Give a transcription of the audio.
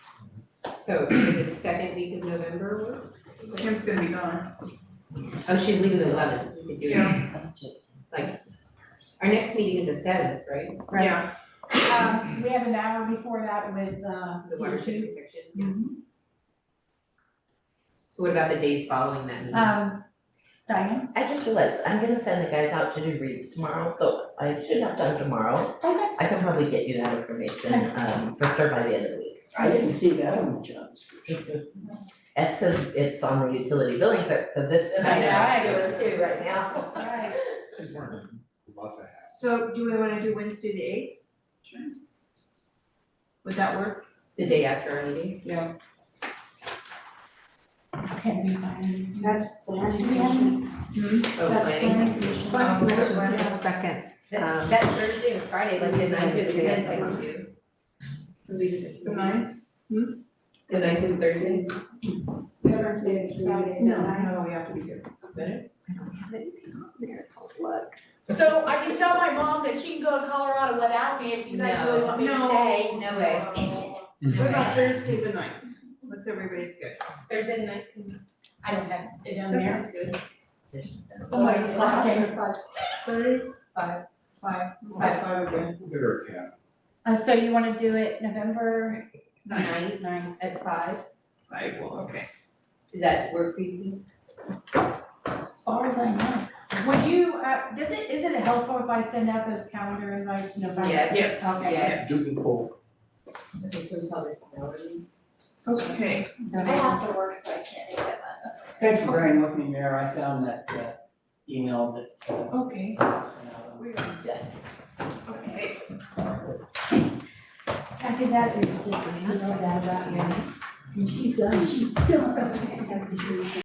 So for the second week of November, what? Kim's gonna be gone. oh, she's leaving the eleventh, we could do it. Yeah, Our next meeting is the seventh, right? Right. yeah. Um, we have an hour before that with, uh, The watershed protection. Mhm. So what about the days following that meeting? Um, Diane? I just realized, I'm gonna send the guys out to do reads tomorrow, so I should have done tomorrow. Okay. I can probably get you that information, um, for sure by the end of the week. I didn't see that on the job description. That's cause it's on the utility billing clerk position. I know, I do it too right now. Alright, She's wearing lots of hats. So do we wanna do Wednesday the eighth? Sure. Would that work? The day after our meeting? Yeah. okay, we find- That's Oh, That's planning? planning commission. Planning Um, commission. Wednesday. Second, That, Um, that Thursday and Friday, like the ninth or the tenth, I uh-huh. can do. The ninth? The ninth is Thursday? Veterans Day is three days. No, we have to be here. So I can tell my mom that she can go to Colorado without me if you guys really want me to No. stay. No way. What about Thursday the ninth? What's everybody's good? Thursday the ninth can be. I don't have it down That there. sounds good. Somebody's slacking. Five. Five. Five, five again. Bigger cat. Uh, so you wanna do it November Nine. nine? at five, Five, well, okay. is that work for you? Far as I know. Would you, uh, does it, is it helpful if I send out those calendar invites November? Yes. Yes. Okay. Yes. Duke Okay, so we call this salary. Okay. So- I have to work, so I can't do that. Thanks for bearing with me, Mayor, I found that uh, email that. uh, Okay. I sent out. We are done. Okay. I think that is just, you know, that about you. And she's done, she's done.